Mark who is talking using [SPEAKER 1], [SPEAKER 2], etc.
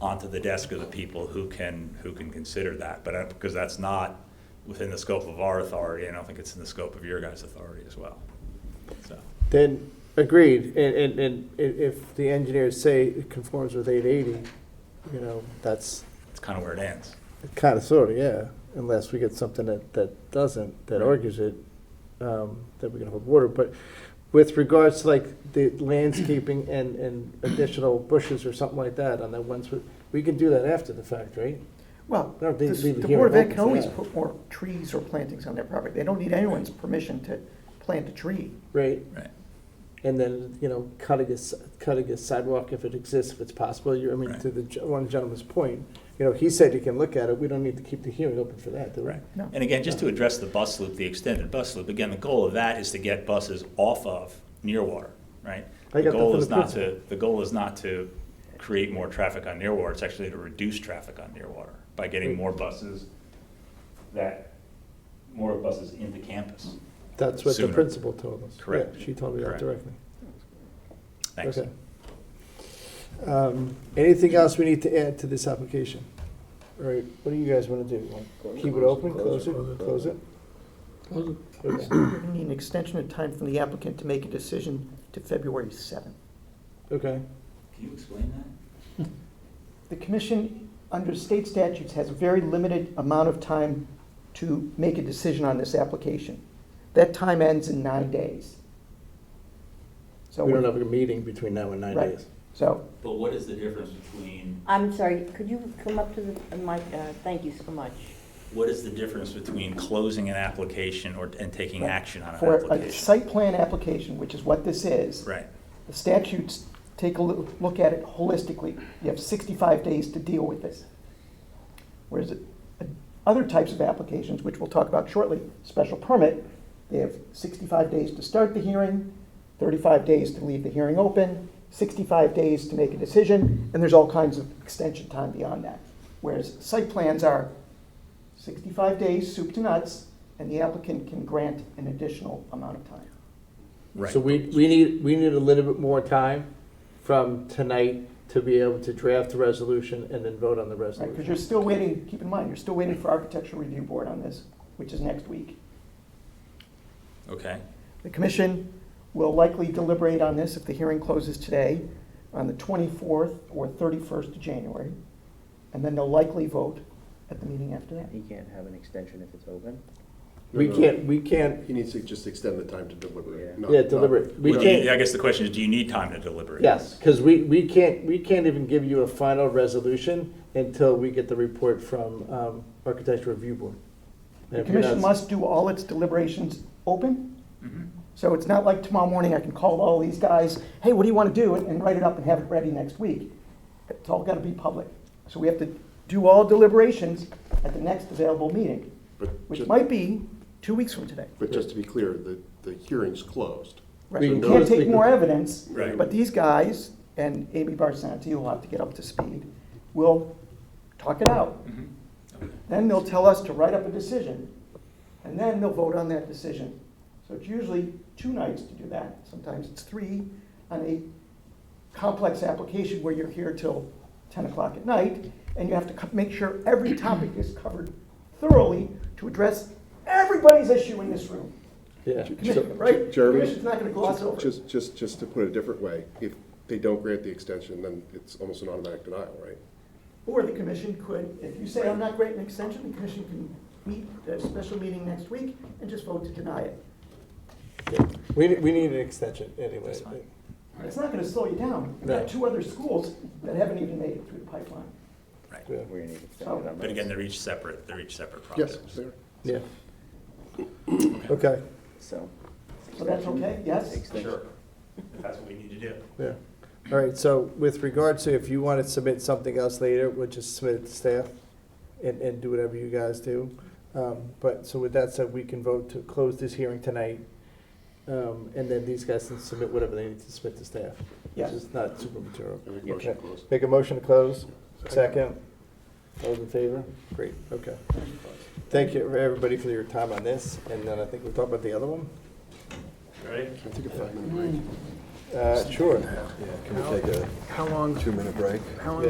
[SPEAKER 1] onto the desk of the people who can, who can consider that. But, I- because that's not within the scope of our authority, and I don't think it's in the scope of your guys' authority as well, so.
[SPEAKER 2] Then, agreed, and, and, and i- if the engineers say it conforms with eight eighty, you know, that's
[SPEAKER 1] It's kind of where it ends.
[SPEAKER 2] kind of sort of, yeah, unless we get something that, that doesn't, that
[SPEAKER 1] Right.
[SPEAKER 2] argues it, um, that we can hold water, but with regards to like the landscaping and, and additional bushes or something like that on that one, sw- we can do that after the fact, right?
[SPEAKER 3] Well,
[SPEAKER 2] No, they
[SPEAKER 3] this-
[SPEAKER 2] leave it
[SPEAKER 3] the
[SPEAKER 2] here
[SPEAKER 3] Board of
[SPEAKER 2] open
[SPEAKER 3] Ed can
[SPEAKER 2] for
[SPEAKER 3] always
[SPEAKER 2] that.
[SPEAKER 3] put more trees or plantings on their property. They don't need anyone's permission to plant a tree.
[SPEAKER 2] Right,
[SPEAKER 1] Right.
[SPEAKER 2] and then, you know, cutting a, s- cutting a sidewalk if it exists, if it's possible, you, I mean,
[SPEAKER 1] Right.
[SPEAKER 2] to the, gen- one gentleman's point, you know, he said you can look at it, we don't need to keep the hearing open for that, do we?
[SPEAKER 1] Right.
[SPEAKER 3] No.
[SPEAKER 1] And again, just to address the bus loop, the extended bus loop, again, the goal of that is to get buses off of near water, right?
[SPEAKER 2] I
[SPEAKER 1] The
[SPEAKER 2] got that
[SPEAKER 1] goal
[SPEAKER 2] from
[SPEAKER 1] is
[SPEAKER 2] the
[SPEAKER 1] not
[SPEAKER 2] principal.
[SPEAKER 1] to, the goal is not to create more traffic on near water, it's actually to reduce traffic on near water by getting more buses that, more buses into campus.
[SPEAKER 2] That's what the
[SPEAKER 1] Sooner.
[SPEAKER 2] principal told us. Yeah,
[SPEAKER 1] Correct.
[SPEAKER 2] She told me that
[SPEAKER 1] Correct.
[SPEAKER 2] directly.
[SPEAKER 1] Thanks.
[SPEAKER 2] Okay. Um, Anything else we need to add to this application? All right, what do you guys want to do? Want to Keep it open, close it, close it? Okay.
[SPEAKER 3] You're gonna need an extension of time from the applicant to make a decision to February seventh.
[SPEAKER 2] Okay,
[SPEAKER 1] Can you explain that?
[SPEAKER 3] The commission, under state statutes, has a very limited amount of time to make a decision on this application. That time ends in nine days. So,
[SPEAKER 2] we don't have a meeting between now and nine
[SPEAKER 3] Right.
[SPEAKER 2] days.
[SPEAKER 3] so,
[SPEAKER 1] But what is the difference between,
[SPEAKER 4] I'm sorry, could you come up to the mic? Uh, Thank you so much.
[SPEAKER 1] what is the difference between closing an application or, and taking action on an
[SPEAKER 3] for a
[SPEAKER 1] application?
[SPEAKER 3] site plan application, which is what this is,
[SPEAKER 1] Right,
[SPEAKER 3] The statutes take a loo- look at it holistically. You have 65 days to deal with this. Whereas uh, other types of applications, which we'll talk about shortly, special permit, they have 65 days to start the hearing, 35 days to leave the hearing open, 65 days to make a decision, and there's all kinds of extension time beyond that. Whereas site plans are 65 days, soup to nuts, and the applicant can grant an additional amount of time.
[SPEAKER 1] right.
[SPEAKER 2] So we, we need, we need a little bit more time from tonight to be able to draft the resolution and then vote on the
[SPEAKER 3] Right, because
[SPEAKER 2] resolution.
[SPEAKER 3] you're still waiting, keep in mind, you're still waiting for Architectural Review Board on this, which is next week.
[SPEAKER 1] Okay,
[SPEAKER 3] The commission will likely deliberate on this if the hearing closes today, on the 24th or 31st of January, and then they'll likely vote at the meeting after that.
[SPEAKER 5] He can't have an extension if it's open.
[SPEAKER 2] We can't, we can't,
[SPEAKER 6] He needs to just extend the time to deliberate.
[SPEAKER 5] Yeah.
[SPEAKER 6] not-
[SPEAKER 2] yeah, deliberate, we
[SPEAKER 1] Well, do
[SPEAKER 2] can't.
[SPEAKER 1] you- I guess the question is, do you need time to deliberate?
[SPEAKER 2] Yes, because we, we can't, we can't even give you a final resolution until we get the report from um, Architecture Review Board.
[SPEAKER 3] The commission must do all its deliberations open,
[SPEAKER 1] Mhm.
[SPEAKER 3] so it's not like tomorrow morning I can call all these guys, hey, what do you want to do, and- and write it up and have it ready next week. It's all got to be public. So we have to do all deliberations at the next available meeting.
[SPEAKER 6] But
[SPEAKER 3] which
[SPEAKER 6] just,
[SPEAKER 3] might be two weeks from today.
[SPEAKER 6] but just to be clear, the, the hearing's closed.
[SPEAKER 3] Right.
[SPEAKER 2] We
[SPEAKER 3] You
[SPEAKER 6] can
[SPEAKER 3] can't
[SPEAKER 2] close- we
[SPEAKER 3] take
[SPEAKER 2] can-
[SPEAKER 3] more evidence,
[SPEAKER 1] Right.
[SPEAKER 3] but these guys, and Amy Barsanti, you'll have to get up to speed, will talk it out.
[SPEAKER 1] Mm-hmm.
[SPEAKER 3] Then they'll tell us to write up a decision, and then they'll vote on that decision. So it's usually two nights to do that, sometimes it's three on a complex application where you're here till ten o'clock at night, and you have to co- make sure every topic is covered thoroughly to address everybody's issue in this room.
[SPEAKER 2] Yeah,
[SPEAKER 3] Commission, right?
[SPEAKER 6] Jeremy?
[SPEAKER 3] Commission's not gonna gloss over it.
[SPEAKER 6] Just, just, just to put it a different way, if they don't grant the extension, then it's almost an automatic denial, right?
[SPEAKER 3] Or the commission could, if you say, I'm not granting an extension, the commission can meet at a special meeting next week and just vote to deny it.
[SPEAKER 2] we, we need an extension anyway.
[SPEAKER 1] That's fine.
[SPEAKER 3] It's not gonna slow you down. We've got
[SPEAKER 2] No.
[SPEAKER 3] two other schools that haven't even made it through the pipeline.
[SPEAKER 1] Right.
[SPEAKER 2] Yeah,
[SPEAKER 5] We're gonna need an extension on
[SPEAKER 1] But
[SPEAKER 5] those.
[SPEAKER 1] again, they're each separate, they're each separate
[SPEAKER 6] Yes,
[SPEAKER 1] projects.
[SPEAKER 6] there.
[SPEAKER 2] Yeah. Okay,
[SPEAKER 5] So.
[SPEAKER 3] So that's okay, yes?
[SPEAKER 5] Extension.
[SPEAKER 1] if that's what we need to do.
[SPEAKER 2] yeah. All right, so with regard to if you want to submit something else later, we'll just submit it to staff and, and do whatever you guys do. Um, But, so with that said, we can vote to close this hearing tonight. um, And then these guys can submit whatever they need to submit to staff.
[SPEAKER 3] Yes.
[SPEAKER 2] Which is not super material.
[SPEAKER 6] I make a motion to close.
[SPEAKER 2] Make a motion to close. Second. All in favor? Great, okay. Thank you, everybody, for your time on this, and then I think we'll talk about the other one.
[SPEAKER 1] Right?
[SPEAKER 6] Can I take a five-minute break?
[SPEAKER 2] Uh, Sure.
[SPEAKER 7] Can we take a
[SPEAKER 8] How long,
[SPEAKER 7] two-minute break?
[SPEAKER 8] how long